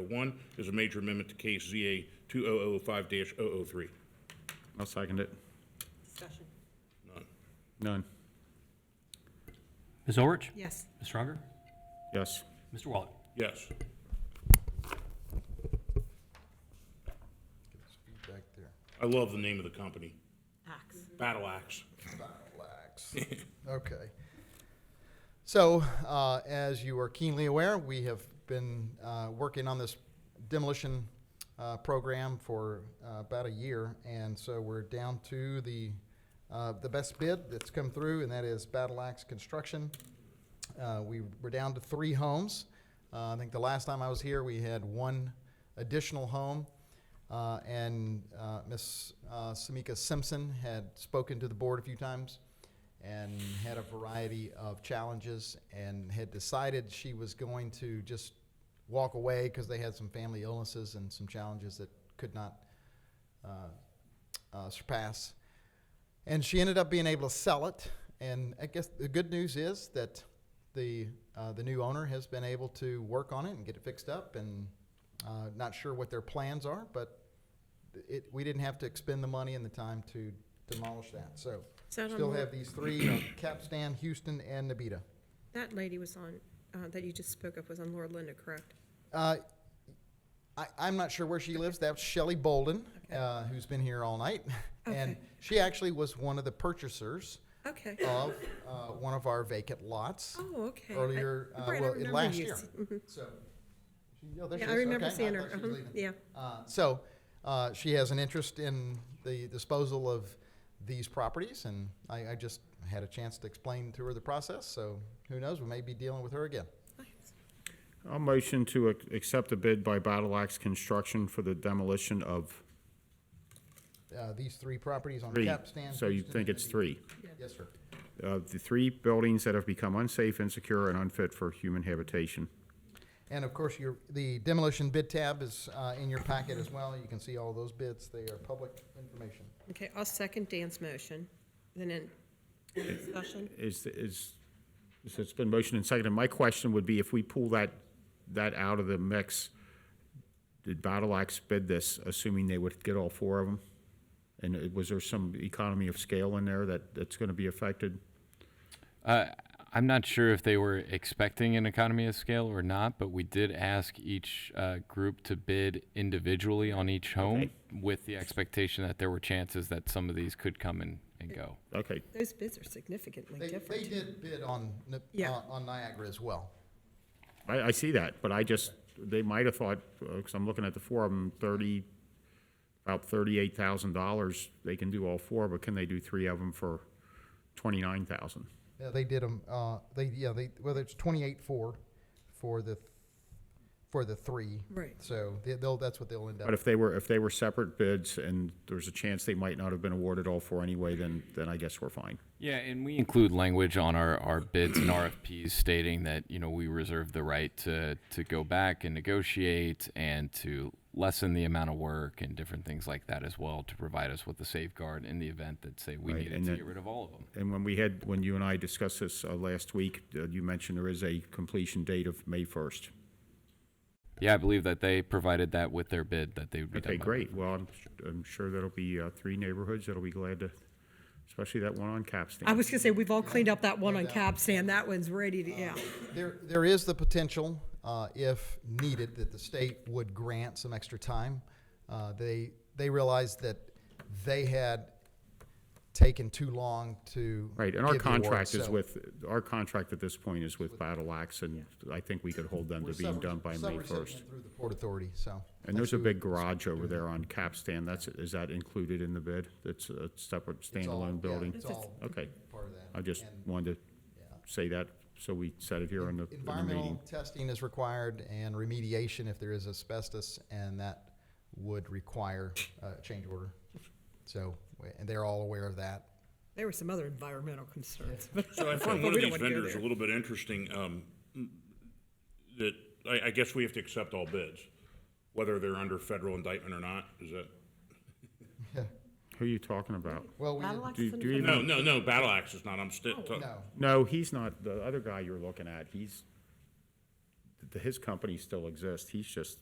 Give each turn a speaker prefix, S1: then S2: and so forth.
S1: One is a major amendment to case ZA 2005-003.
S2: I'll second it.
S3: Discussion.
S2: None.
S4: Ms. Orich?
S3: Yes.
S4: Mr. Unger?
S2: Yes.
S4: Mr. Waller?
S1: Yes.
S5: Back there.
S1: I love the name of the company,
S3: Ax.
S1: Battle Axe.
S5: Relax. Okay. So, uh, as you are keenly aware, we have been uh, working on this demolition uh, program for uh, about a year, and so we're down to the uh, the best bid that's come through, and that is Battle Axe Construction. Uh, we were down to three homes. Uh, I think the last time I was here, we had one additional home. Uh, and uh, Ms. Uh, Samika Simpson had spoken to the board a few times and had a variety of challenges and had decided she was going to just walk away because they had some family illnesses and some challenges that could not uh, uh, surpass. And she ended up being able to sell it. And I guess the good news is that the uh, the new owner has been able to work on it and get it fixed up. And uh, not sure what their plans are, but it we didn't have to expend the money and the time to demolish that. So
S3: So I'm
S5: still
S3: more-
S5: have these three: uh, Capstan, Houston, and Nabita.
S3: That lady was on, uh, that you just spoke of was on Laura Linda, correct?
S5: Uh, I, I'm not sure where she lives. That's Shelley Bolden, uh, who's been here all night. And
S3: Okay.
S5: she actually was one of the purchasers
S3: Okay.
S5: of uh, one of our vacant lots
S3: Oh, okay. I-
S5: earlier, uh,
S3: Brian, I
S5: well, in
S3: remember
S5: last
S3: you
S5: year.
S3: s- mm-hmm.
S5: So, she- oh, there she
S3: Yeah, I
S5: is.
S3: remember
S5: Okay.
S3: seeing
S5: I
S3: her.
S5: thought she was
S3: Uh-huh.
S5: leaving.
S3: Yeah.
S5: Uh, So, uh, she has an interest in the disposal of these properties, and I, I just had a chance to explain to her the process, so who knows, we may be dealing with her again.
S2: I'll motion to ac- accept a bid by Battle Axe Construction for the demolition of
S5: Uh, These three properties on
S2: three.
S5: Capstan.
S2: So you
S5: Houston,
S2: think
S5: and
S2: it's three.
S5: Nabita. Yes, sir.
S2: Uh, The three buildings that have become unsafe, insecure, and unfit for human habitation.
S5: And of course, your, the demolition bid tab is uh, in your packet as well. You can see all those bids. They are public information.
S3: Okay, I'll second Dan's motion. Then in discussion,
S2: Is, is, is it's been motioned and seconded. My question would be if we pull that, that out of the mix, did Battle Axe bid this, assuming they would get all four of them? And it- was there some economy of scale in there that, that's going to be affected?
S6: Uh, I'm not sure if they were expecting an economy of scale or not, but we did ask each uh, group to bid individually on each home with the expectation that there were chances that some of these could come and, and go.
S2: Okay,
S3: those bids are significantly
S5: They, they
S3: different.
S5: did bid on, Ni-
S3: Yeah.
S5: on- on Niagara as well.
S2: I, I see that, but I just, they might have thought, because I'm looking at the four of them, thirty, about thirty-eight thousand dollars, they can do all four, but can they do three of them for twenty-nine thousand?
S5: Yeah, they did them, uh, they, yeah, they, whether it's twenty-eight four for the, for the three.
S3: Right.
S5: So they- they'll, that's what they'll end up.
S2: But if they were, if they were separate bids and there's a chance they might not have been awarded all four anyway, then, then I guess we're fine.
S6: Yeah, and we include language on our, our bids and RFPs stating that, you know, we reserve the right to, to go back and negotiate and to lessen the amount of work and different things like that as well to provide us with a safeguard in the event that, say, we
S2: Right,
S6: needed
S2: and
S6: to
S2: that-
S6: get rid of all of them.
S2: And when we had, when you and I discussed this uh, last week, uh, you mentioned there is a completion date of May first.
S6: Yeah, I believe that they provided that with their bid that they would be done
S2: Okay,
S6: by
S2: great. Well, I'm, I'm sure that'll be uh, three neighborhoods that'll be glad to, especially that one on Capstan.
S3: I was gonna say, we've all cleaned up that one on Cab Stand. That one's ready to,
S5: Um,
S3: yeah.
S5: There, there is the potential, uh, if needed, that the state would grant some extra time. Uh, They, they realized that they had taken too long to.
S2: Right, and our
S5: give the award,
S2: contract is
S5: so-
S2: with, our contract at this point is with Battle Axe, and I think we could hold them to
S5: We're
S2: being
S5: sub-
S2: done by May
S5: subrecipient
S2: first.
S5: Through the Port Authority, so.
S2: And there's a big garage over there on Capstan, that's, is that included in the bid? That's a separate
S5: It's all- yeah,
S2: standalone building?
S5: It's all
S2: Okay,
S5: part of that.
S2: I just
S5: And
S2: wanted to say that, so we said it here in the, in the
S5: Environmental
S2: meeting.
S5: testing is required and remediation if there is asbestos, and that would require a change order. So, and they're all aware of that.
S3: There were some other environmental concerns, but
S1: So I
S3: But
S1: find one of
S3: we
S1: these
S3: don't wanna go
S1: vendors a
S3: there.
S1: little bit interesting, um, that, I, I guess we have to accept all bids, whether they're under federal indictment or not, is that?
S2: Who are you talking about?
S5: Well, we,
S3: Battle Axe
S2: Do, do you
S1: No,
S2: even,
S1: no, no, Battle Axe is not, I'm still,
S3: Oh,
S5: no,
S2: no, he's not, the other guy you're looking at, he's, th- his company still exists, he's just